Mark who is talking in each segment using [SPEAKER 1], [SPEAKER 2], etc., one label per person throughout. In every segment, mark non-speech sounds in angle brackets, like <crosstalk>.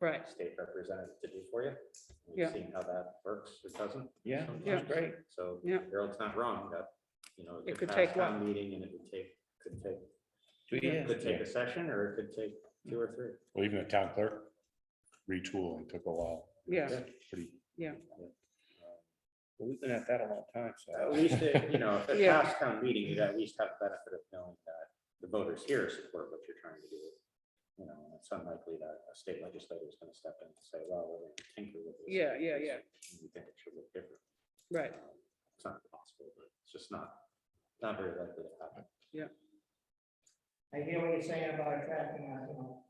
[SPEAKER 1] Right,
[SPEAKER 2] state representative to do for you. We've
[SPEAKER 1] Yeah.
[SPEAKER 2] Seen how that works or doesn't.
[SPEAKER 3] Yeah,
[SPEAKER 1] Yeah.
[SPEAKER 3] that's great.
[SPEAKER 2] So
[SPEAKER 1] Yeah.
[SPEAKER 2] Harold's not wrong, that, you know.
[SPEAKER 1] It could
[SPEAKER 2] pass
[SPEAKER 1] take
[SPEAKER 2] town Meeting and it would take, could take,
[SPEAKER 3] Two
[SPEAKER 2] it could take
[SPEAKER 3] years.
[SPEAKER 2] a session or it could take two or three.
[SPEAKER 4] Well, even the town clerk retooling took a while.
[SPEAKER 1] yeah,
[SPEAKER 4] Pretty,
[SPEAKER 3] We've been at that a long time,
[SPEAKER 2] At
[SPEAKER 3] so.
[SPEAKER 2] least, it-
[SPEAKER 3] <laughs>
[SPEAKER 2] you know, if it
[SPEAKER 1] Yeah.
[SPEAKER 2] passed town meeting, you'd at least have the benefit of knowing that the voters here support what you're trying to do. You know, and it's unlikely that a state legislator is going to step in and say, well, we're going to tinker with this.
[SPEAKER 1] Yeah, yeah,
[SPEAKER 2] because
[SPEAKER 1] yeah.
[SPEAKER 2] We think it should look different.
[SPEAKER 1] right.
[SPEAKER 2] Um, It's not possible, but it's just not, not very likely to happen.
[SPEAKER 5] I hear what you're saying about attracting, uh, you know,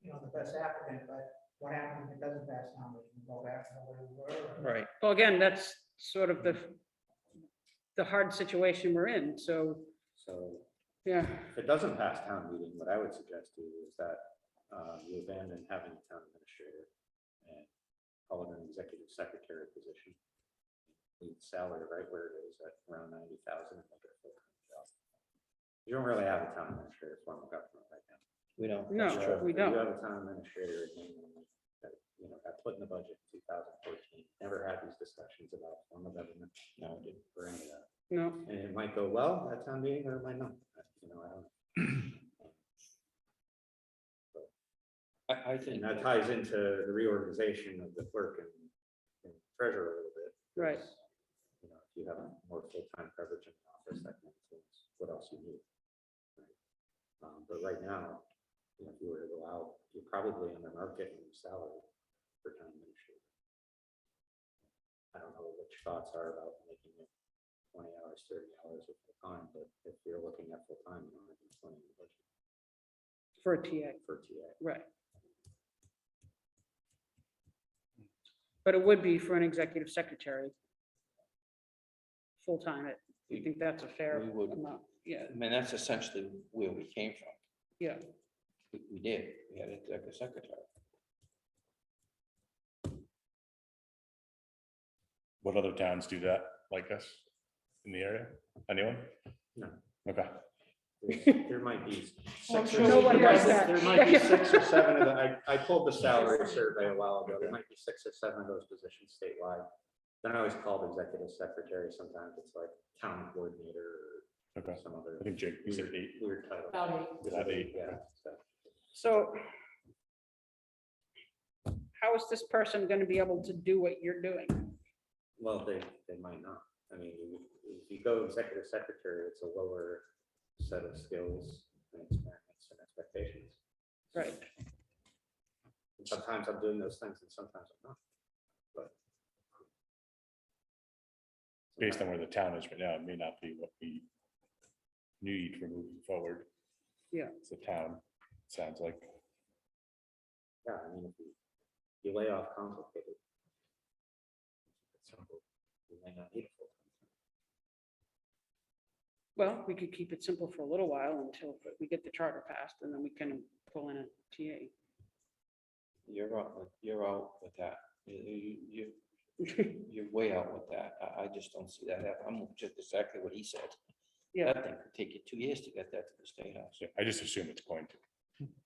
[SPEAKER 5] you know, the best applicant, but what happens if it doesn't pass now? We can go back to where we were.
[SPEAKER 3] Right.
[SPEAKER 1] Well, again, that's sort of the, the hard situation we're in, so,
[SPEAKER 2] So
[SPEAKER 1] yeah,
[SPEAKER 2] if it doesn't pass town meeting, what I would suggest to you is that uh, you abandon having a town administrator and call it an executive secretary position. Leave the salary right where it is at around ninety thousand. You don't really have a town administrator form of government right now.
[SPEAKER 3] We don't.
[SPEAKER 1] No.
[SPEAKER 3] that's true.
[SPEAKER 1] we don't.
[SPEAKER 2] You have a town administrator in England that, you know, got put in the budget in two thousand fourteen, never had these discussions about form of government. No, didn't bring it up.
[SPEAKER 1] no,
[SPEAKER 2] And it might go well at town meeting or it might not, you know, I don't.
[SPEAKER 3] I, I think.
[SPEAKER 2] And that ties into the reorganization of the clerk and- and treasurer a little bit.
[SPEAKER 1] Right.
[SPEAKER 2] because, You know, if you have more full-time coverage in the office, that can influence what else you need. right? Um, but right now, you know, if you were to go out, you're probably under market in your salary for town administrator. I don't know what your thoughts are about making it twenty hours, thirty hours of full-time, but if you're looking at full-time, you don't have to twenty in the budget
[SPEAKER 1] for a TA,
[SPEAKER 2] for TA.
[SPEAKER 1] right. But it would be for an executive secretary. Full-time, I- you think that's a fair
[SPEAKER 3] We would.
[SPEAKER 1] amount, yeah,
[SPEAKER 3] I mean, that's essentially where we came from.
[SPEAKER 1] yeah,
[SPEAKER 3] We, we did. We had a like a secretary.
[SPEAKER 4] what other towns do that like us in the area? Anyone?
[SPEAKER 2] No.
[SPEAKER 4] Okay,
[SPEAKER 2] There's- There might be six or.
[SPEAKER 1] sure
[SPEAKER 2] there
[SPEAKER 1] nobody
[SPEAKER 2] might
[SPEAKER 1] does
[SPEAKER 2] be-
[SPEAKER 1] that.
[SPEAKER 2] There might
[SPEAKER 1] <laughs>
[SPEAKER 2] be six or seven of the, I, I pulled the salary survey a while ago. There might be six or seven of those positions statewide. Then I always called executive secretary. Sometimes it's like town coordinator
[SPEAKER 4] okay.
[SPEAKER 2] or some other
[SPEAKER 4] I think Jake said
[SPEAKER 2] weird
[SPEAKER 4] eight.
[SPEAKER 2] weird title.
[SPEAKER 4] About eight.
[SPEAKER 2] Yeah, so.
[SPEAKER 1] so. How is this person gonna be able to do what you're doing?
[SPEAKER 2] Well, they, they might not. I mean, you- if you go executive secretary, it's a lower set of skills and experience and expectations.
[SPEAKER 1] Right,
[SPEAKER 2] And Sometimes I'm doing those things and sometimes I'm not, but.
[SPEAKER 4] Based on where the town is right now, it may not be what we need for moving forward.
[SPEAKER 1] Yeah.
[SPEAKER 4] It's a town, sounds like.
[SPEAKER 2] Yeah, I mean, if you, you lay off complicated. it's simple. You may not need it full time.
[SPEAKER 1] well, we could keep it simple for a little while until we get the charter passed, and then we can pull in a TA.
[SPEAKER 3] You're out, with- you're out with that. You- You, you, you're way out with that. I, I just don't see that. hap- I'm just exactly what he said.
[SPEAKER 1] Yeah.
[SPEAKER 3] That thing could take you two years to get that to the state house.
[SPEAKER 4] Yeah, I just assume it's going to.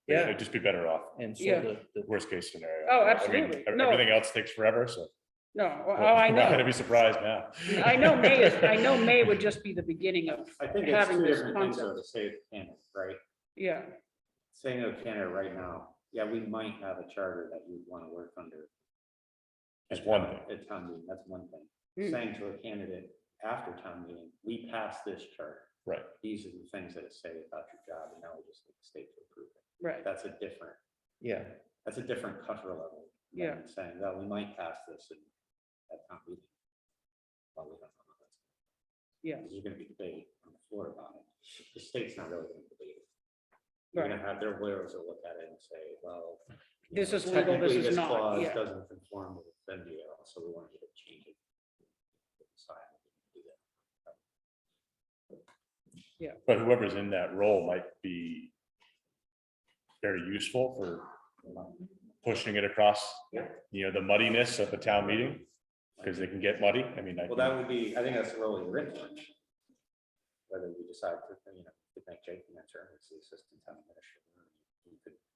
[SPEAKER 3] Yeah.
[SPEAKER 4] It'd just be better off,
[SPEAKER 3] And so
[SPEAKER 1] Yeah.
[SPEAKER 3] the, the,
[SPEAKER 4] worst case scenario.
[SPEAKER 1] Oh,
[SPEAKER 4] I mean,
[SPEAKER 1] absolutely.
[SPEAKER 4] ev-
[SPEAKER 1] No.
[SPEAKER 4] Everything else takes forever, so.
[SPEAKER 1] <laughs> No, oh, oh, I
[SPEAKER 4] <laughs> we're not Gonna
[SPEAKER 1] know.
[SPEAKER 4] be surprised now.
[SPEAKER 1] I know May
[SPEAKER 4] <laughs>
[SPEAKER 1] is, I know May would just be the beginning of,
[SPEAKER 2] I think it's
[SPEAKER 1] Having
[SPEAKER 2] two
[SPEAKER 1] this
[SPEAKER 2] different things though, to
[SPEAKER 1] concept.
[SPEAKER 2] save Canada, right?
[SPEAKER 1] yeah,
[SPEAKER 2] Saying of Canada right now, yeah, we might have a charter that you'd want to work under.
[SPEAKER 4] It's
[SPEAKER 2] at
[SPEAKER 4] one
[SPEAKER 2] town-
[SPEAKER 4] thing.
[SPEAKER 2] At town meeting, that's one thing.
[SPEAKER 1] Hmm.
[SPEAKER 2] Saying to a candidate after town meeting, we passed this charter.
[SPEAKER 4] Right.
[SPEAKER 2] These are the things that it say about your job and now we just need the state to approve it.
[SPEAKER 1] right,
[SPEAKER 2] That's a different,
[SPEAKER 3] yeah,
[SPEAKER 2] that's a different cover level.
[SPEAKER 1] yeah,
[SPEAKER 2] and saying, well, we might pass this and at town meeting. Well, we don't know what that's-
[SPEAKER 1] yeah,
[SPEAKER 2] There's gonna be debate on the floor about it. The state's not really gonna debate it. They're gonna have their lawyers will look at it and say, well. you
[SPEAKER 1] This
[SPEAKER 2] know,
[SPEAKER 1] is legal, this
[SPEAKER 2] technically
[SPEAKER 1] is not,
[SPEAKER 2] clause
[SPEAKER 1] yeah.
[SPEAKER 2] Doesn't conform with the NDL, so we want you to change it. They decide to do that.
[SPEAKER 4] But whoever's in that role might be very useful for pushing it across,
[SPEAKER 2] Yeah.
[SPEAKER 4] you know, the muddiness of the town meeting, because they can get muddy. I mean, I,
[SPEAKER 2] Well, that would be, I think that's the role you're in. Whether you decide to, you know, to make Jake the interim, it's the assistant town administrator. You could